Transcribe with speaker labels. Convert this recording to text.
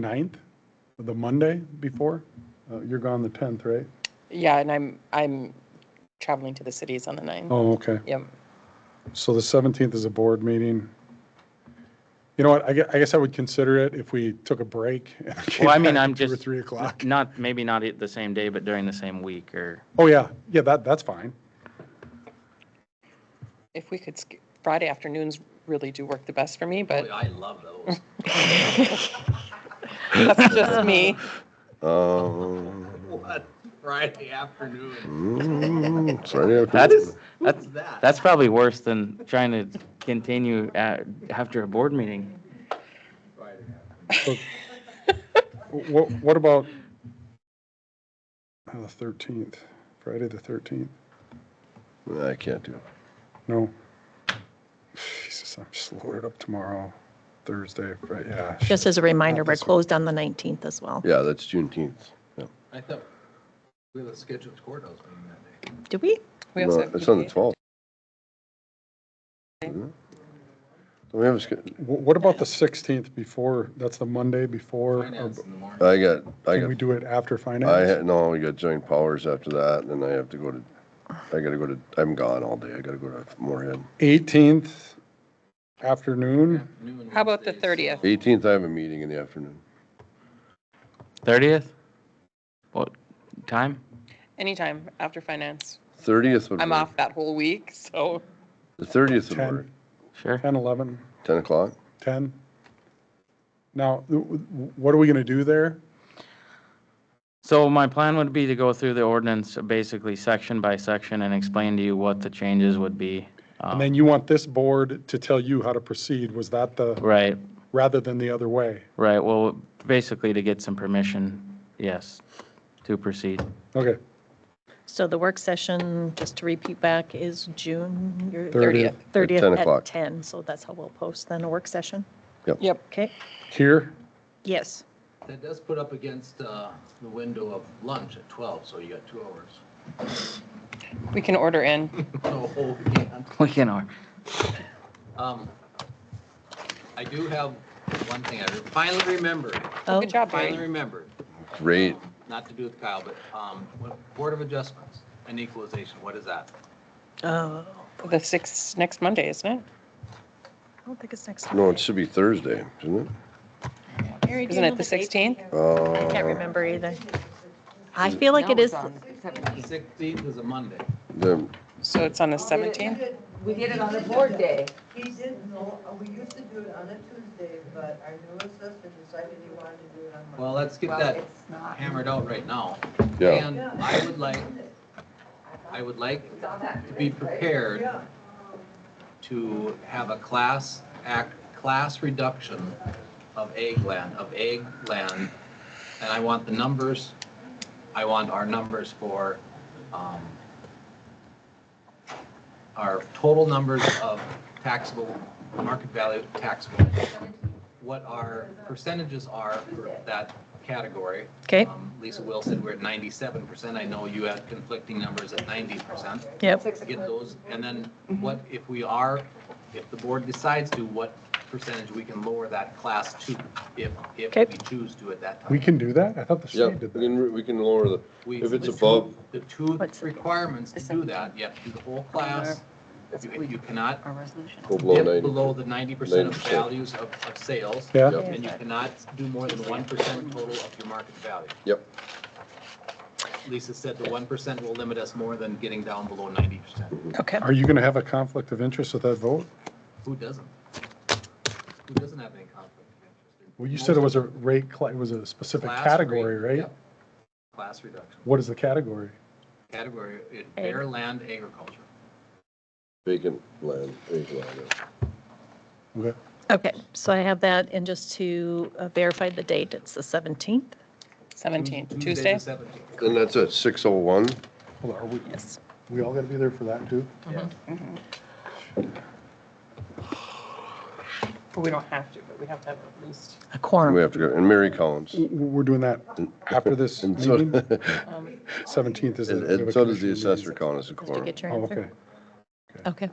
Speaker 1: 9th, the Monday before? Uh, You're gone the 10th, right?
Speaker 2: Yeah, and I'm, I'm traveling to the cities on the ninth.
Speaker 1: Oh, okay.
Speaker 2: Yep.
Speaker 1: So the 17th is a board meeting. You know what, I gue- I guess I would consider it if we took a break. and came
Speaker 3: Well, I mean,
Speaker 1: back
Speaker 3: I'm
Speaker 1: at Two or
Speaker 3: just-
Speaker 1: 3 o'clock.
Speaker 3: Not, maybe not at the same day, but during the same week or,
Speaker 1: Oh, yeah, yeah, that, that's fine.
Speaker 2: If we could, sk- Friday afternoons really do work the best for me, but
Speaker 4: I love those.
Speaker 2: that's just me.
Speaker 5: Um,
Speaker 4: What? Friday afternoon.
Speaker 5: mm, sorry, I
Speaker 3: that's,
Speaker 5: couldn't-
Speaker 3: that's,
Speaker 4: that?
Speaker 3: that's probably worse than trying to continue at, after a board meeting.
Speaker 4: Friday afternoon.
Speaker 1: What, what about uh, the 13th, Friday the 13th?
Speaker 5: I can't do. it.
Speaker 1: No. Jesus, I'm just loaded up tomorrow, Thursday, Friday, yeah.
Speaker 6: Just as a reminder,
Speaker 1: Not
Speaker 6: we're
Speaker 1: this one.
Speaker 6: closed on the 19th as well.
Speaker 5: Yeah, that's Juneteenth. Yeah.
Speaker 4: I thought we had a scheduled courthouse meeting that day.
Speaker 6: Do we?
Speaker 2: We
Speaker 5: No,
Speaker 2: also have
Speaker 5: it's on the
Speaker 2: PTA.
Speaker 5: 12th. Isn't it? Don't we have a sch-
Speaker 1: Wh- What about the 16th before, that's the Monday before? or-
Speaker 4: Finance in the morning.
Speaker 5: I got, I
Speaker 1: Can we
Speaker 5: got,
Speaker 1: do it after
Speaker 5: I
Speaker 1: finance?
Speaker 5: had, no, we got joint powers after that, and I have to go to, I gotta go to, I'm gone all day. I gotta go to Moorhead.
Speaker 1: 18th afternoon,
Speaker 4: Afternoon
Speaker 2: How about the
Speaker 4: Wednesdays.
Speaker 2: 30th?
Speaker 5: 18th, I have a meeting in the afternoon.
Speaker 3: Thirtieth? What, time?
Speaker 2: Anytime after finance.
Speaker 5: 30th would.
Speaker 2: I'm
Speaker 5: work.
Speaker 2: off that whole week, so
Speaker 5: The 30th would
Speaker 1: 10.
Speaker 5: work.
Speaker 3: Sure.
Speaker 1: 10, 11,
Speaker 5: 10 o'clock?
Speaker 1: 10. Now, w- w- what are we going to do there?
Speaker 3: So my plan would be to go through the ordinance basically section by section and explain to you what the changes would be. Um,
Speaker 1: And then you want this board to tell you how to proceed, was that the,
Speaker 3: Right,
Speaker 1: rather than the other way?
Speaker 3: right. Well, basically to get some permission, yes, to proceed.
Speaker 1: Okay,
Speaker 6: So the work session, just to repeat back, is June your-
Speaker 1: 30th.
Speaker 2: 30th.
Speaker 5: 10
Speaker 6: 30th
Speaker 5: o'clock.
Speaker 6: at 10. So that's how we'll post then, a work session.
Speaker 2: Yep.
Speaker 6: Okay?
Speaker 1: here,
Speaker 6: Yes.
Speaker 4: That does put up against uh, the window of lunch at 12, so you got two hours.
Speaker 2: We can order in.
Speaker 4: No, we can't.
Speaker 3: We can, uh, or-
Speaker 4: Um, I do have one thing I re- finally remembered.
Speaker 6: Oh,
Speaker 2: Good job,
Speaker 4: Finally
Speaker 2: Barry.
Speaker 4: remembered.
Speaker 5: Great.
Speaker 4: Not to do with Kyle, but um, what- Board of Adjustments and Equalization, what is that?
Speaker 6: Oh,
Speaker 2: The sixth, next Monday, isn't
Speaker 6: I don't think it's next.
Speaker 5: No, it
Speaker 6: Monday.
Speaker 5: should be Thursday, isn't
Speaker 6: Mary,
Speaker 2: it?
Speaker 6: do
Speaker 2: Isn't
Speaker 6: you
Speaker 2: it
Speaker 6: know
Speaker 2: the
Speaker 6: date?
Speaker 2: 16th?
Speaker 5: it? Uh,
Speaker 6: I can't remember either. I feel like it
Speaker 7: No,
Speaker 6: is,
Speaker 7: it's on the 17th.
Speaker 4: Sixteenth is a Monday.
Speaker 5: the-
Speaker 2: So it's on the
Speaker 8: Oh, did it-
Speaker 2: 17th?
Speaker 7: We did it on the board day.
Speaker 8: He didn't know, we used to do it on a Tuesday, but our new assistant decided he wanted to do it on Monday.
Speaker 4: Well, let's get
Speaker 7: Well,
Speaker 4: that
Speaker 7: it's not.
Speaker 4: hammered out right now.
Speaker 5: Yeah.
Speaker 4: And I would like, I would like to be prepared to have a class act, class reduction of egg land, of egg land. And I want the numbers, I want our numbers for, um, our total numbers of taxable, market value taxable, what our percentages are for that category.
Speaker 6: okay,
Speaker 4: Um, Lisa Will said we're at ninety-seven percent. I know you had conflicting numbers at ninety percent.
Speaker 6: yep,
Speaker 4: Get those, and then what, if we are, if the board decides to, what percentage we can lower that class to, if, if
Speaker 6: Okay.
Speaker 4: we choose to at that time.
Speaker 1: we can do that? I thought the
Speaker 5: Yeah,
Speaker 1: state
Speaker 5: we
Speaker 1: did that.
Speaker 5: can, we can lower the,
Speaker 4: We-
Speaker 5: if it's
Speaker 4: the two-
Speaker 5: above,
Speaker 4: The two
Speaker 6: What's it?
Speaker 4: requirements to do that, you have to do the whole class. You you cannot
Speaker 7: Our resolution.
Speaker 5: go below
Speaker 4: dip
Speaker 5: 90.
Speaker 4: below the ninety percent of
Speaker 5: 90%.
Speaker 4: values of, of sales.
Speaker 1: Yeah,
Speaker 5: Yep.
Speaker 4: And you cannot do more than one percent total of your market value.
Speaker 5: Yep.
Speaker 4: Lisa said the one percent will limit us more than getting down below ninety percent.
Speaker 6: okay.
Speaker 1: are you going to have a conflict of interest with that vote?
Speaker 4: Who doesn't? Who doesn't have any conflict of interest?
Speaker 1: Well, you said it was a rate, cla- it was a specific
Speaker 4: Class
Speaker 1: category,
Speaker 4: rate,
Speaker 1: right?
Speaker 4: yep. Class reduction,
Speaker 1: What is the category?
Speaker 4: category, it- bare land agriculture.
Speaker 5: Vacant land, vacant land.
Speaker 1: Okay.
Speaker 6: Okay, so I have that, and just to uh, verify the date, it's the 17th?
Speaker 2: 17th,
Speaker 4: the
Speaker 2: Tuesday?
Speaker 4: 17th.
Speaker 5: And that's at 6:01?
Speaker 1: Hold on, are we,
Speaker 6: Yes.
Speaker 1: we all got to be there for that too?
Speaker 2: But we don't have to, but we have to have at least.
Speaker 6: A quorum.
Speaker 5: We have to go, and Mary Collins.
Speaker 1: W- w- We're doing that after this
Speaker 5: And so,
Speaker 1: meeting?
Speaker 5: and
Speaker 1: Seventeenth is. the- we have
Speaker 5: and
Speaker 1: a
Speaker 5: so does
Speaker 1: commission
Speaker 5: the
Speaker 1: meeting.
Speaker 5: assessor, Collins, a
Speaker 6: Just to
Speaker 5: quorum.
Speaker 6: get your
Speaker 1: Oh,
Speaker 6: answer.
Speaker 1: okay.
Speaker 6: Okay.